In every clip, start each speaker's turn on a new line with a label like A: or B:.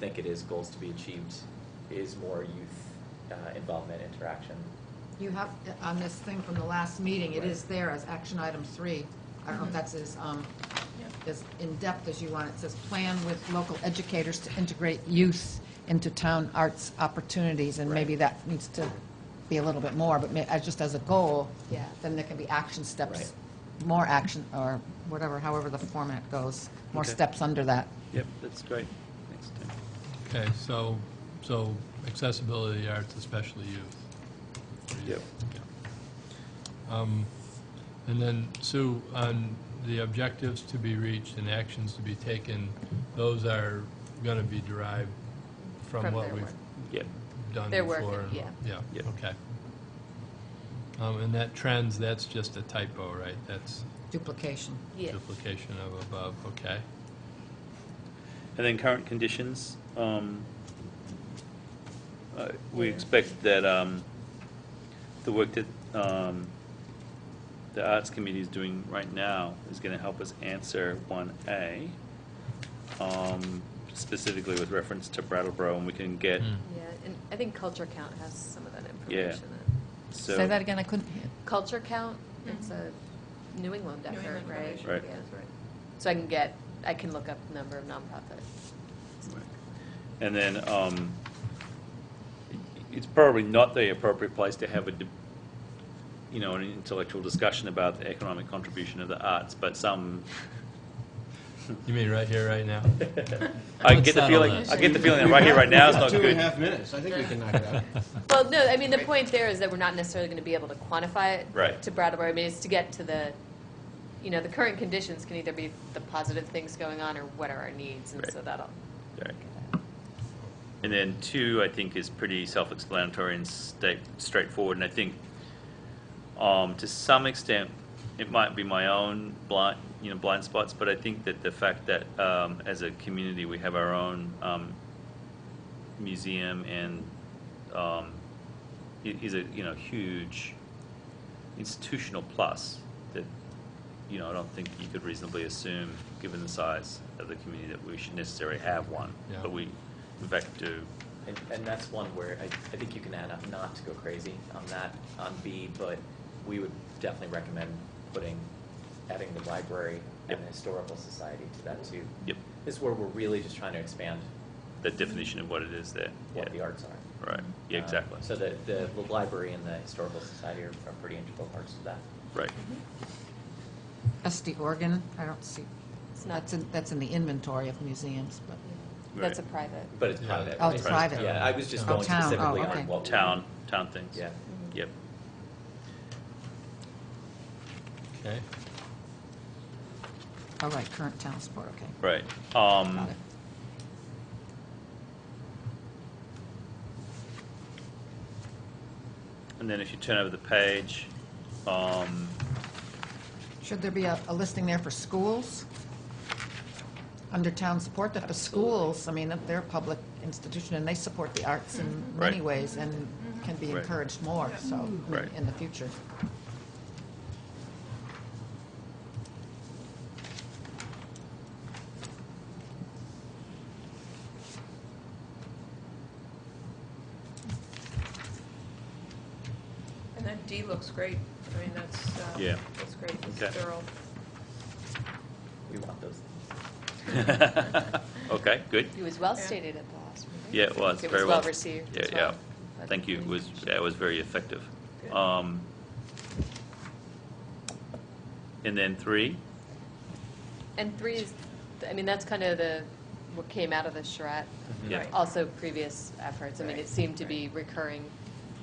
A: think it is goals to be achieved is more youth uh, involvement, interaction.
B: You have, on this thing from the last meeting, it is there as action item three. I don't know if that's as, um, as in-depth as you want. It says, "Plan with local educators to integrate youth into town arts opportunities." And maybe that needs to be a little bit more, but ma- as, just as a goal,
C: Yeah.
B: then there can be action steps, more action, or whatever, however the format goes, more
D: Okay.
B: steps under that.
D: Yep, that's great. Thanks, Tim.
E: Okay, so, so accessibility of the arts, especially youth.
D: Yep.
E: Yeah. Um, And then, Sue, on the objectives to be reached and actions to be taken, those are going to be derived from
C: From
E: what
C: their
E: we've
C: work.
D: Yep,
E: done
C: Their work,
E: before.
C: yeah.
D: Yep.
E: Yeah, okay. Um, And that trends, that's just a typo, right? That's
B: Duplication.
C: Yeah,
E: duplication of above, okay.
D: and then current conditions, um, uh, we expect that, um, the work that, um, the Arts Committee is doing right now is gonna help us answer one A, um, specifically with reference to Brattleboro, and we can get,
E: Hmm.
C: yeah, and I think Culture Count has some of that information. in.
D: so.
B: Say that again, I couldn't hear.
C: Culture Count, it's a New England
F: Mm-hmm. New
C: effort,
F: England
C: right?
F: Foundation,
D: Right.
C: Yeah.
F: that's right.
C: So I can get, I can look up the number of nonprofits.
D: And then, um, it's probably not the appropriate place to have a, de- you know, an intellectual discussion about the economic contribution of the arts, but some,
E: You mean right here, right now?
D: I
E: Let's
D: get the
E: settle
D: feeling,
E: this.
D: I get the feeling that right here, right now is not
G: Two and a half
D: good.
G: minutes, I think we can knock it out.
C: Well, no, I mean, the point there is that we're not necessarily going to be able to quantify it.
D: Right.
C: To Brattleboro, I mean, it's to get to the, you know, the current conditions can either be the positive things going on or what are our needs, and
D: Right.
C: so that'll.
D: Right. And then two, I think, is pretty self-explanatory and sta- straightforward, and I think, um, to some extent, it might be my own blind, you know, blind spots, but I think that the fact that, um, as a community, we have our own, um, museum and, um, i- is a, you know, huge institutional plus that, you know, I don't think you could reasonably assume, given the size of the community, that we should necessarily have one.
E: Yeah.
D: But we, in fact, do.
A: And, and that's one where I, I think you can add up not to go crazy on that, on B, but we would definitely recommend putting, adding the library
D: Yep.
A: and the historical society to that too.
D: Yep.
A: This is where we're really just trying to expand
D: the definition of what it is there.
A: what the
D: yeah.
A: arts are.
D: Right, yeah,
A: Um,
D: exactly.
A: So the, the the library and the historical society are are pretty integral parts of that.
D: Right,
B: SD organ, I don't see,
C: It's not-
B: that's in, that's in the inventory of museums, but,
C: That's a
D: Right.
C: private.
A: But it's
E: Yeah.
A: private.
B: Oh, it's
A: right?
B: private.
A: Yeah, I was just
B: Oh,
A: going
B: town. Oh,
A: specifically
B: okay.
A: on what. we-
D: town, town things.
A: Yeah.
D: Mm-hmm. Yep,
E: Okay.
B: all oh, right, current town support, okay.
D: right.
B: Got
D: Um,
B: it.
D: and then if you turn over the page, um,
B: Should there be a, a listing there for schools? Under town support, that the schools, I mean, they're a public institution, and they support the arts in many
D: Mm-hmm. Right.
B: ways, and can be
D: Right.
B: encouraged more, so, I mean,
D: Right.
B: in the future.
F: And that D looks great. I mean, that's, uh,
D: Yeah.
F: that's great. It's
D: Okay.
F: thorough.
A: We want those things.
D: okay, good.
C: It was well
F: Yeah.
C: stated at the last meeting.
D: Yeah, it was,
C: It
D: very
C: was
D: well.
C: well received
D: Yeah,
C: as
D: yeah.
C: well. by the
D: Thank you, it was,
C: community.
D: yeah, it was very effective.
F: Good.
D: Um, and then three,
C: And three is, I mean, that's kind of the, what came out of the charrette.
D: Mm-hmm. Yeah.
F: Right.
C: Also previous efforts. I mean, it
F: Right.
C: seemed to be recurring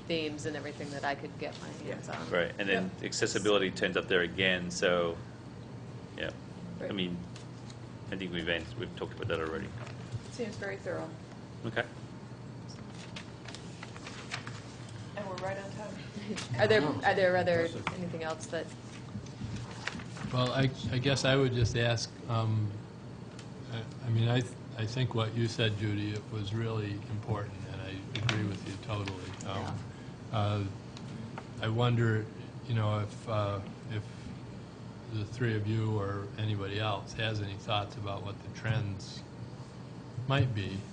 C: themes and everything that I could get my
A: Yeah.
C: hands on.
D: right, and then accessibility turns up there again, so, yeah. I
F: Right.
D: mean, I think we've, ans- we've talked about that already.
F: It seems very thorough.
D: Okay.
F: And we're right on time.
C: Are there,
F: Oh.
C: are there other, anything else that,
E: Well, I, I guess I would just ask, um, I, I mean, I, th- I think what you said, Judy, it was really important, and I agree with you totally. Um, uh, I wonder, you know, if, uh, if the three of you or anybody else has any thoughts about what the trends might be